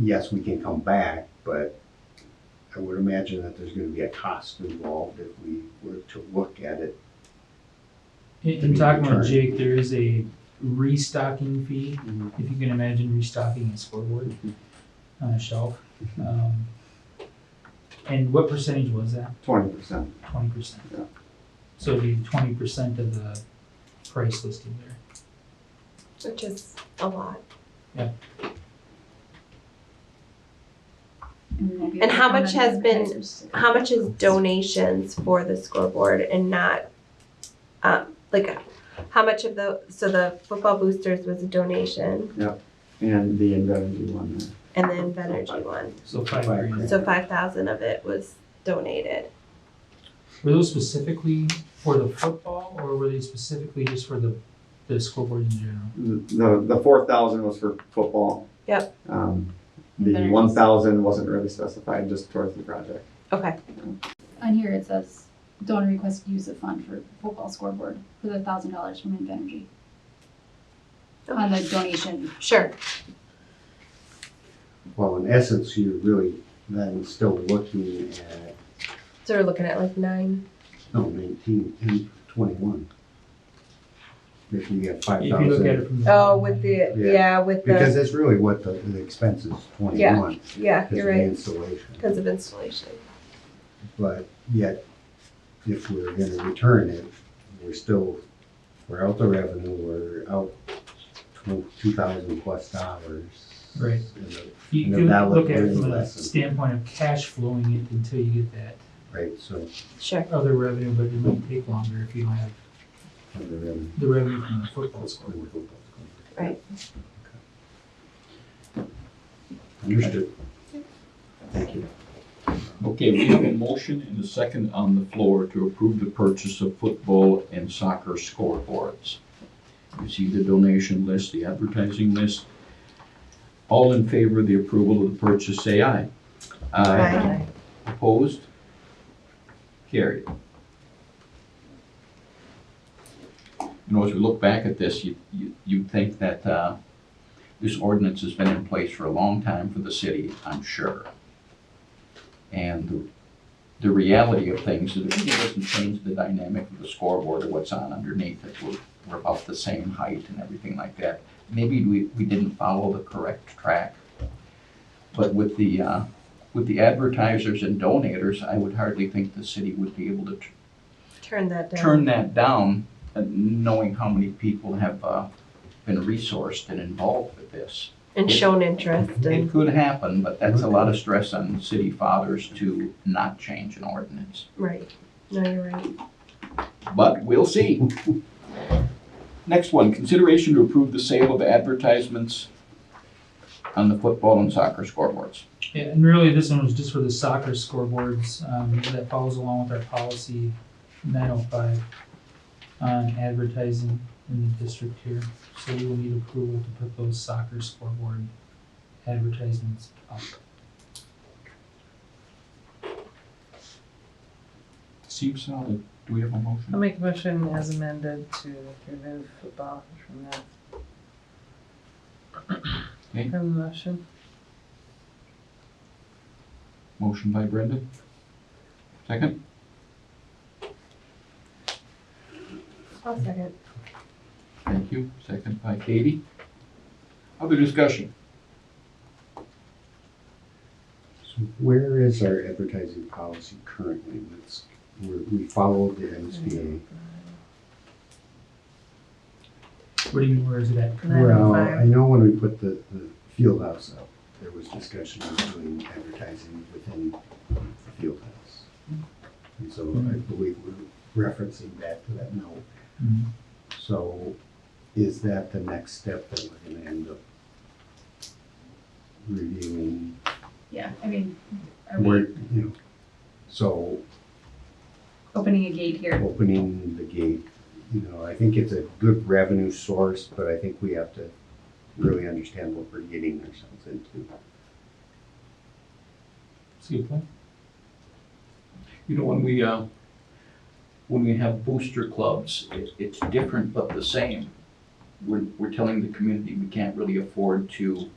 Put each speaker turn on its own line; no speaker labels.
yes, we can come back, but I would imagine that there's gonna be a cost involved if we were to look at it.
In,
To be
in talking about
returned.
Jake, there is a restocking fee, if you can imagine restocking a scoreboard on a shelf. Um, And what percentage was that?
Twenty percent.
Twenty percent?
Yeah.
So it'd be twenty percent of the price listed there.
which is a lot. And how much has been- How much is donations for the scoreboard and not, um, like, how much of the, so the football boosters was a donation
and the indemnity one there.
and the Invenergy one?
So five
Five
grand.
grand.
So five thousand of it was donated.
Were those specifically for the football or were they specifically just for the, the scoreboard in general?
The, the four thousand was for football.
Yep.
Um, the
Indemnity.
one thousand wasn't really specified, just towards the project.
Okay,
On here it says donor request use of fund for football scoreboard for the thousand dollars from Invenergy. On the donation,
sure.
Well, in essence, you're really then still looking at,
So we're looking at like nine.
no, nineteen, ten, twenty-one. If you get five
If you look
thousand,
at it from the.
Oh, with the,
Yeah.
yeah, with
because
the,
that's really what the, the expense is, twenty-one,
yeah,
is
you're
the
right,
installation.
because of installation.
But yet, if we're gonna return it, we're still, we're out the revenue, we're out two thousand plus dollars.
Right.
And the-
You
And
do
that was
look at it
really
from a
less than-
standpoint of cash flowing it until you get that
Right, so,
Sure.
other revenue, but it might take longer if you don't have
the revenue.
the revenue from the football score.
Right.
Understood. Thank you.
Okay, we have a motion and a second on the floor to approve the purchase of football and soccer scoreboards. You see the donation list, the advertising list. All in favor of the approval of the purchase, say aye.
Aye.
Opposed? Carried. You know, as we look back at this, you, you, you think that, uh, this ordinance has been in place for a long time for the city, I'm sure. And the- the reality of things is it really doesn't change the dynamic of the scoreboard or what's on underneath it. We're, we're about the same height and everything like that. Maybe we, we didn't follow the correct track. But with the, uh, with the advertisers and donators, I would hardly think the city would be able to t-
Turn that down.
turn that down, uh, knowing how many people have uh, been resourced and involved with this.
And shown interest
It
and,
could happen, but that's a lot of stress on city fathers to not change an ordinance.
right. No, you're right.
But we'll see. Next one, consideration to approve the sale of advertisements on the football and soccer scoreboards.
Yeah, and really, this one was just for the soccer scoreboards, um, that follows along with our policy nine oh five on advertising in the district here, so we will need approval to put those soccer scoreboard advertisements up.
Seems solid. Do we have a motion?
I'll make a motion as amended to remove football from the
Okay.
from the motion.
Motion by Brendan. Second,
I'll second.
thank you. Second by Katie. Other discussion?
So where is our advertising policy currently? Let's, we're, we followed the MSBA.
What do you mean, where is it at?
Nine oh
Well,
five.
I know when we put the, the field house up, there was discussion of doing advertising within the field house. And so I believe we're referencing back to that note.
Mhm.
So is that the next step that we're gonna end up reviewing?
yeah, I mean, are
Where,
we
you know, so
opening a gate here?
opening the gate, you know, I think it's a good revenue source, but I think we have to really understand what we're getting ourselves into.
That's a good point.
You know, when we, uh, when we have booster clubs, it, it's different but the same. We're, we're telling the community we can't really afford to